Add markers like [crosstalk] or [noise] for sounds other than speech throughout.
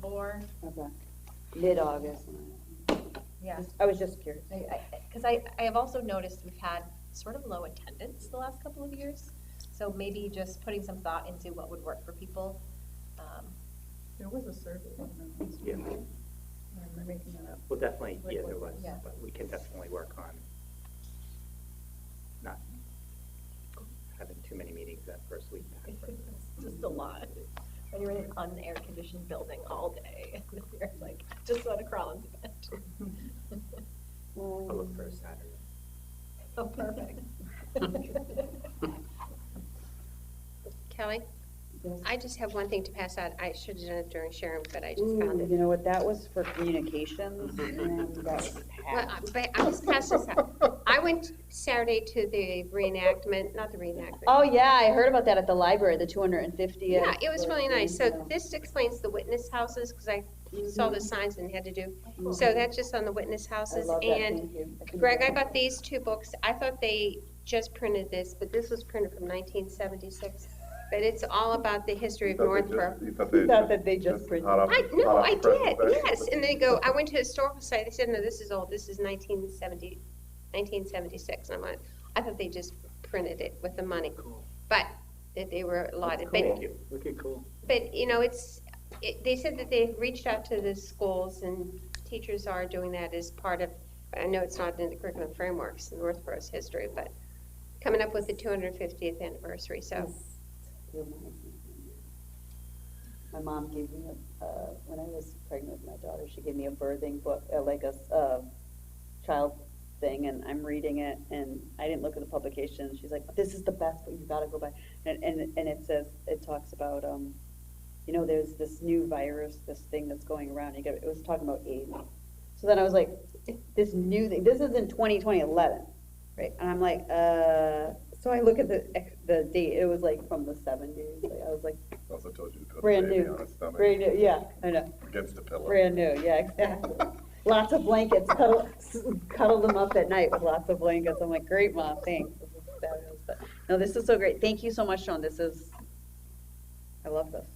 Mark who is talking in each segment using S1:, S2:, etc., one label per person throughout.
S1: more,
S2: Okay. Mid-August.
S1: yeah.
S2: I was just curious.
S1: Because I, I have also noticed we've had sort of low attendance the last couple of years. So maybe just putting some thought into what would work for people. Um,
S3: There was a survey.
S4: Yeah.
S3: I'm making that up.
S4: Well, definitely, yeah, there was,
S1: Yeah.
S4: but we can definitely work on not having too many meetings that first week. back.
S1: It's [laughs] just a lot. When you're in an un-air-conditioned building all day, [laughs] you're like, just want to crawl into bed.
S2: Mm.
S4: I'll look for a Saturday.
S1: Oh, [laughs] perfect.
S5: Kelly, I just have one thing to pass out. I should have done it during Sharon, but I just found it.
S2: You know what, that was for communications, and that was
S5: [laughs] Well,
S2: packed.
S5: I- But I just passed this out. I went Saturday to the reenactment, not the reenactment.
S2: Oh, yeah, I heard about that at the library, the 250th.
S5: Yeah, Mm-hmm. it was really nice. So this explains the witness houses, because I saw the signs and had to do. So that's just on the witness houses. And Greg, I got these two books. I thought they just printed this, but this was printed from 1976. But it's all about the history of
S6: You thought they
S5: Northborough.
S6: just- You thought they.
S2: Not that they just printed.
S6: hot off the-
S5: I, no,
S6: hot off
S5: I
S6: the press,
S5: did,
S6: but-
S5: yes, and they go, I went to historical site, they said, no, this is old, this is 1970 1976, and I'm like, I thought they just printed it with the money,
S4: Cool.
S5: but that they were allotted,
S4: Thank
S5: but,
S4: you. Look at cool.
S5: but, you know, it's, it- they said that they reached out to the schools, and teachers are doing that as part of, I know it's not in the curriculum frameworks, in Northborough's history, but coming up with the 250th anniversary, so,
S2: My mom gave me, a uh, when I was pregnant with my daughter, she gave me a birthing book, uh, like a s- uh, child thing, and I'm reading it, and I didn't look at the publication. She's like, "This is the best, but you've got to go by." And, and and it says it talks about, um, you know, there's this new virus, this thing that's going around. You got it was talking about AIDS. So then I was like, "This new thing. This is in 2011." Right, and I'm like, uh, so I look at the, ex- the date, it was like from the seventies, I was like,
S6: Also told you to put
S2: brand
S6: the baby
S2: new,
S6: on its stomach
S2: brand new, yeah, I know,
S6: against a pillow.
S2: brand new, yeah, exactly. Lots of blankets, cuddle, cuddle them up at night with lots of blankets, I'm like, great, mom, thanks. This is fabulous. But, No, this is so great, thank you so much, Sean, this is, I love this.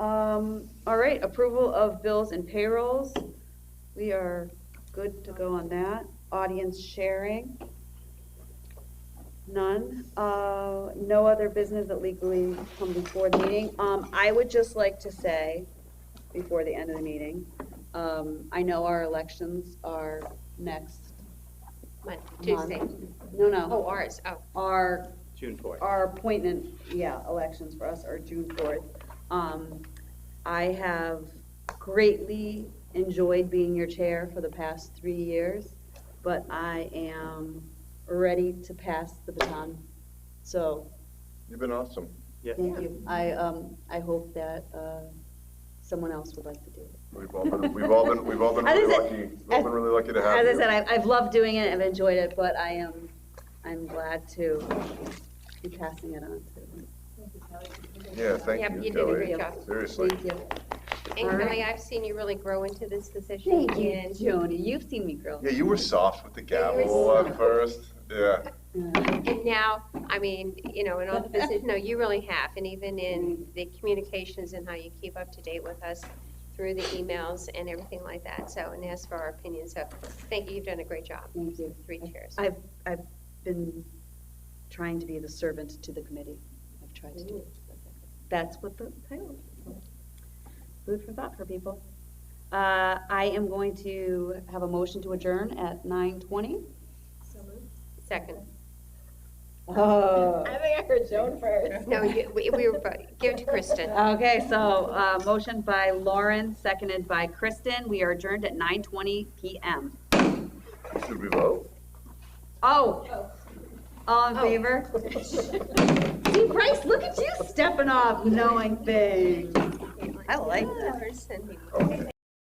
S2: Um, all right, approval of bills and payrolls. We are good to go on that. Audience sharing. None. Uh, no other business that legally come before the meeting. Um, I would just like to say, before the end of the meeting, um, I know our elections are next
S5: Mon-
S2: month.
S5: Tuesday.
S2: No, no,
S5: Oh, ours, oh,
S2: our
S4: June fourth.
S2: our appointment, yeah, elections for us are June fourth. Um, I have greatly enjoyed being your chair for the past three years, but I am ready to pass the baton. So,
S6: You've been awesome.
S4: Yeah.
S2: thank you. I, um, I hope that, uh, someone else would like to do it.
S6: We've all
S2: [laughs]
S6: been, we've all been, we've all been
S2: As I
S6: really
S2: said-
S6: lucky, we've all
S2: as-
S6: been really lucky to have
S2: As
S6: you.
S2: I said, I, I've loved doing it, I've enjoyed it, but I am, I'm glad to be passing it on to.
S6: Yeah, thank
S5: Yep,
S6: you,
S5: you did a
S6: Kelly.
S5: great job.
S6: Seriously.
S2: Thank you.
S5: and
S2: All right.
S5: Kelly, I've seen you really grow into this position,
S2: Thank you,
S5: and
S2: Joni. You've seen me grow.
S6: Yeah, you were soft with the
S5: Yeah, you were
S6: gavel at first, yeah.
S2: Yeah.
S5: And now, I mean, you know, in
S2: [laughs]
S5: all the business, no, you really have, and even in the communications and how you keep up to date with us through the emails and everything like that, so, and ask for our opinion, so, thank you, you've done a great job.
S2: Thank you.
S5: Three chairs.
S2: I've, I've been trying to be the servant to the committee. I've tried to do it. That's what the title is. Food for thought for people. Uh, I am going to have a motion to adjourn at nine twenty.
S5: Second,
S2: Oh.
S1: I think I heard Joan first.
S5: no, you, we we were, voting. give it to Kristen.
S2: Okay, so, uh, motion by Lauren, seconded by Kristen. We are adjourned at nine twenty PM.
S6: Should
S5: [laughs]
S6: we vote?
S2: Oh, all in favor? [laughs] See, Bryce, look at you stepping off, knowing things. I like that.
S5: Kristen.
S6: Okay.